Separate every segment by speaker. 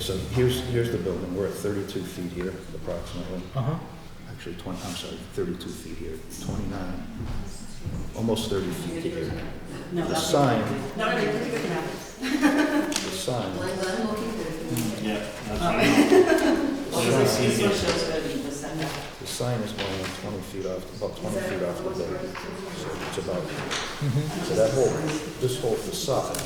Speaker 1: so here's, here's the building, we're at 32 feet here approximately,
Speaker 2: Uh-huh.
Speaker 1: actually 20, I'm sorry, 32 feet here, 29, almost 30 feet here. The sign,
Speaker 3: No, no, you're good now.
Speaker 1: the sign,
Speaker 4: Yeah.
Speaker 3: Well, this this one
Speaker 4: That's
Speaker 3: shows thirty percent.
Speaker 1: the sign is more than 20 feet off, about 20 feet off the building, so it's about,
Speaker 2: Mm-hmm.
Speaker 1: so that whole, this whole facade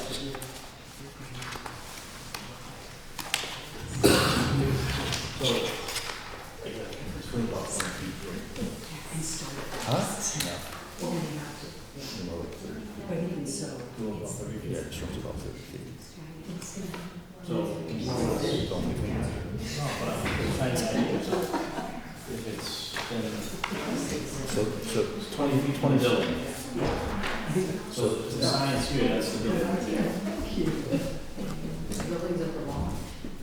Speaker 3: But even so, it's,
Speaker 1: Yeah, it shrinks about thirty feet. It's
Speaker 4: So,
Speaker 1: only-
Speaker 4: if it's been
Speaker 1: So, so,
Speaker 4: twenty feet from the building. So the sign's here, that's the building. Buildings are the law.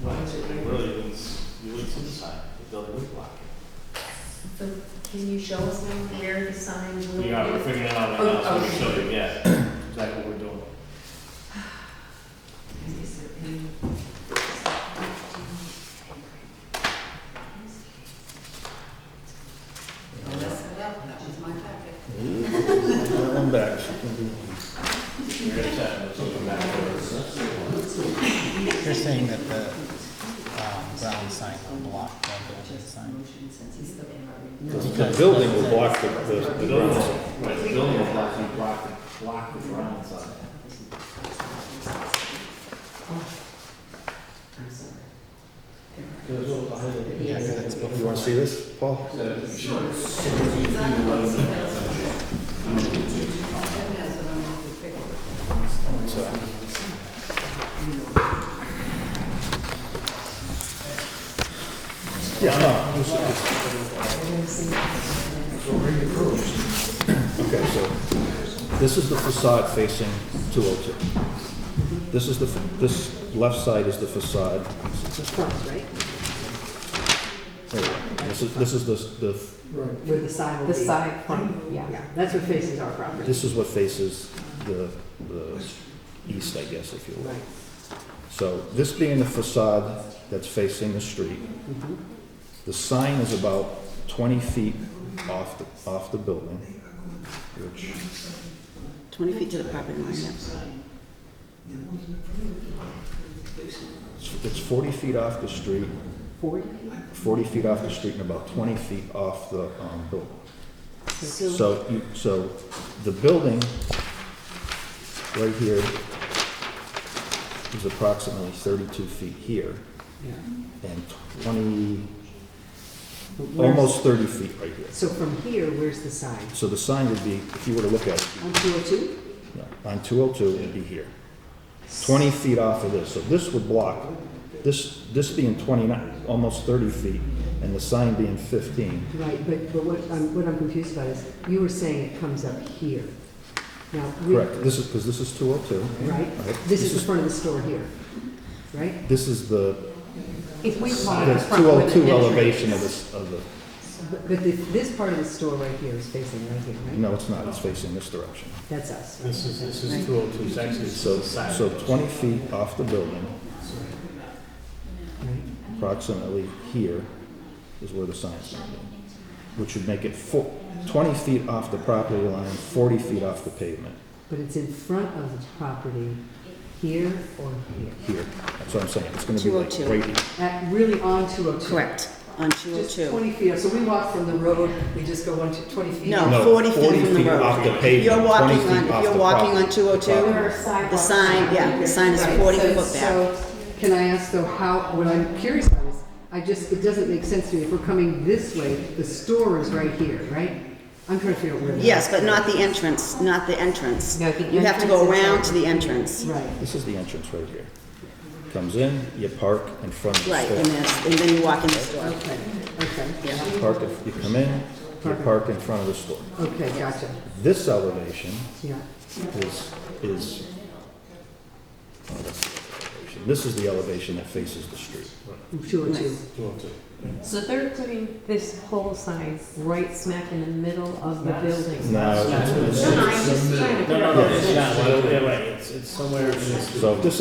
Speaker 4: Really, you wouldn't- you wouldn't see the sign, the building would block it.
Speaker 5: Can you show us now where the sign will be?
Speaker 4: We are, we're figuring it out right now, so we'll show you, yeah, exactly what we're doing.
Speaker 3: is there any? that was my packet.
Speaker 1: I'm back. so it can be-
Speaker 4: We're at that, let's open that door.
Speaker 2: You're saying that the um, ground sign will block the building sign?
Speaker 1: The the building will block the, the,
Speaker 4: The
Speaker 1: the
Speaker 4: building,
Speaker 1: ground.
Speaker 4: will- right, the building will block, you block, the- block the ground sign.
Speaker 2: Yeah, 'cause it's
Speaker 1: You
Speaker 2: before.
Speaker 1: wanna see this, Paul? Yeah, no, it's- it's- Okay, so this is the facade facing two oh two. This is the, fa- this left side is the facade. There we go. This is, this is the, the
Speaker 6: Where the sign will
Speaker 7: The
Speaker 6: be.
Speaker 7: side front,
Speaker 6: Yeah,
Speaker 7: yeah.
Speaker 6: that's what faces our property.
Speaker 1: This is what faces the, the east, I guess, if you will.
Speaker 6: Right.
Speaker 1: So this being the facade that's facing the street, the sign is about 20 feet off, the off the building, which,
Speaker 7: 20 feet to the property line, yeah.
Speaker 1: it's 40 feet off the street,
Speaker 6: Forty?
Speaker 1: 40 feet off the street and about 20 feet off the um, building.
Speaker 6: So-
Speaker 1: So, you- so the building right here is approximately 32 feet here
Speaker 6: yeah.
Speaker 1: and 20,
Speaker 6: But where's-
Speaker 1: almost 30 feet right here.
Speaker 6: So from here, where's the sign?
Speaker 1: So the sign would be, if you were to look at it,
Speaker 6: On two oh two?
Speaker 1: you know, on 202, it'd be here. 20 feet off of this, so this would block, this, this being 29, almost 30 feet, and the sign being 15.
Speaker 6: Right, but, but what I'm, what I'm confused about is, you were saying it comes up here. Now, we.
Speaker 1: Correct, this is, because this is 202.
Speaker 6: Right?
Speaker 1: Right.
Speaker 6: This is the front of the store here, right?
Speaker 1: This is the,
Speaker 6: If we call it the
Speaker 1: the
Speaker 6: front with an
Speaker 1: 202
Speaker 6: entrance.
Speaker 1: elevation of this, of the,
Speaker 6: But but this, this part of the store right here is facing right here, right?
Speaker 1: no, it's not, it's facing this direction.
Speaker 6: That's us.
Speaker 4: This is, this is two oh two, it's actually
Speaker 1: So, so 20 feet off the building, approximately here, is where the sign's going to be, which would make it fo- 20 feet off the property line, 40 feet off the pavement,
Speaker 6: But it's in front of the property, here or here?
Speaker 1: here. That's what I'm saying, it's going to be like
Speaker 7: 202.
Speaker 1: right here.
Speaker 6: At, really on two oh two?
Speaker 7: Correct, on
Speaker 6: Just
Speaker 7: 202.
Speaker 6: 20 feet, so we walk from the road, we just go one to 20 feet.
Speaker 7: No.
Speaker 1: No,
Speaker 7: 40 feet from the road.
Speaker 1: off the pavement,
Speaker 7: You're
Speaker 1: 20
Speaker 7: walking
Speaker 1: feet
Speaker 7: on,
Speaker 1: off
Speaker 7: if you're
Speaker 1: the
Speaker 7: walking
Speaker 1: property-
Speaker 7: on 202,
Speaker 1: property.
Speaker 7: the sign, yeah, the sign is 40 foot back.
Speaker 6: Can I ask though, how, what I'm curious about is, I just, it doesn't make sense to me, if we're coming this way, the store is right here, right? I'm trying to figure out where. that
Speaker 7: Yes,
Speaker 6: is.
Speaker 7: but not the entrance, not the entrance.
Speaker 6: No, the
Speaker 7: You have to go
Speaker 6: entrance is-
Speaker 7: around to the entrance.
Speaker 6: Right,
Speaker 1: This is the entrance right here. Comes in, you park in front of the
Speaker 7: Right,
Speaker 1: store.
Speaker 7: and then, and then you walk in the store.
Speaker 6: okay, okay,
Speaker 7: Yeah,
Speaker 1: Park, in- you come in, you park in front of the store.
Speaker 6: okay, gotcha,
Speaker 1: This elevation
Speaker 6: yeah.
Speaker 1: is, is, oh, that's the elevation. This is the elevation that faces the street.
Speaker 6: Two oh two,
Speaker 5: So they're putting this whole sign right smack in the middle of the building.
Speaker 1: Now, it's-
Speaker 5: No, no, I'm just trying to.
Speaker 4: No, no, no, it's not, yeah, right, it's, it's somewhere in this.
Speaker 1: so if this